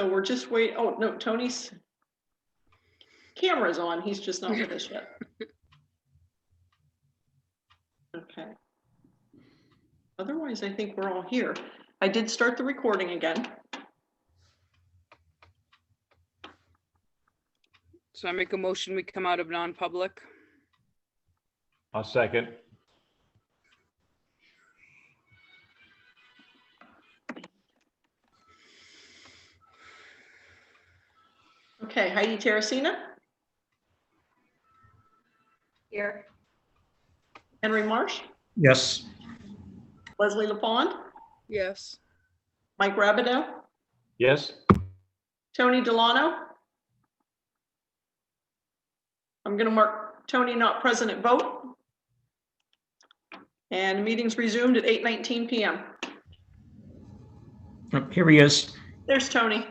So we're just wait, oh, no, Tony's camera's on, he's just not with us yet. Okay. Otherwise, I think we're all here. I did start the recording again. So I make a motion, we come out of non-public. I'll second. Okay, Heidi Terracina, Here. Henry Marsh, Yes. Leslie LaFond, Yes. Mike Rabideau, Yes? Tony Delano. I'm going to mark Tony not present at vote. And meetings resumed at 8:19 PM. Oh, Here he is. There's Tony.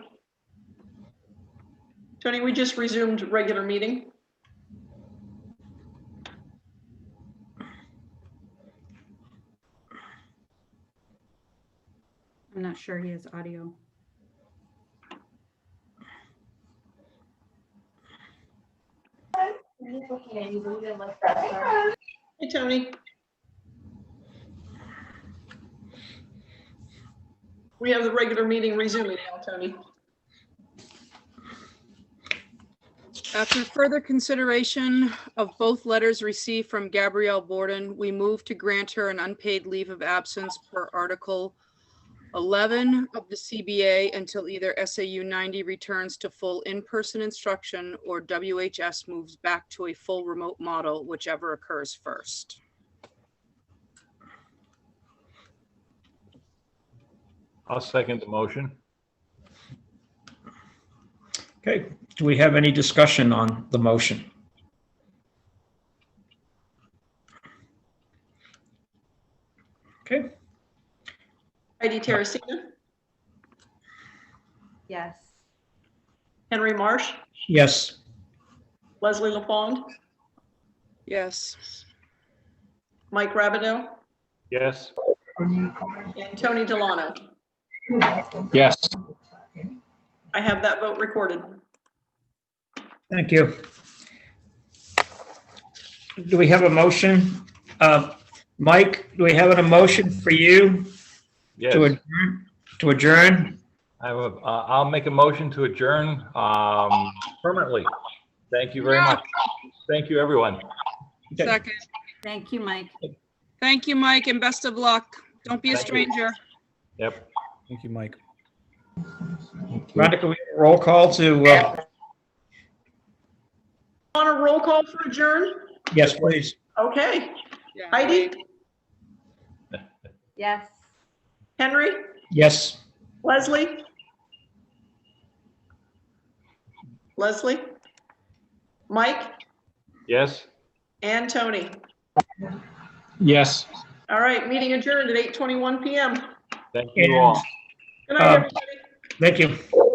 Tony, we just resumed regular meeting. I'm not sure he has audio. Hey, Tony. We have the regular meeting resuming now, Tony. After further consideration of both letters received from Gabrielle Borden, we move to grant her an unpaid leave of absence per Article 11 of the CBA until either SAU 90 returns to full in-person instruction or WHS moves back to a full remote model, whichever occurs first. I'll second the motion. Okay, do we have any discussion on the motion? Okay, Heidi Terracina, Yes. Henry Marsh, yes. Leslie LaFond, Yes. Mike Rabideau, Yes? and Tony Delano. Yes. I have that vote recorded. Thank you. Do we have a motion? Uh, Mike, do we have an emotion for you Yes. to adjourn? To adjourn? I will, uh, I'll make a motion to adjourn, um, permanently. Thank you very much. Thank you, everyone. Okay, Second. Thank you, Mike. Thank you, Mike, and best of luck. Don't be a Thank you. stranger. Yep. Thank you, Mike. Rhonda, can we have a roll call to, uh, On a roll call for adjourn? yes, please. Okay. Yeah. Heidi, Yes. Henry, Yes. Leslie? Leslie? Mike Yes? and Tony. Yes. All right, meeting adjourned at 8:21 PM. Thank you all. Good Uh, night, everybody. Thank you.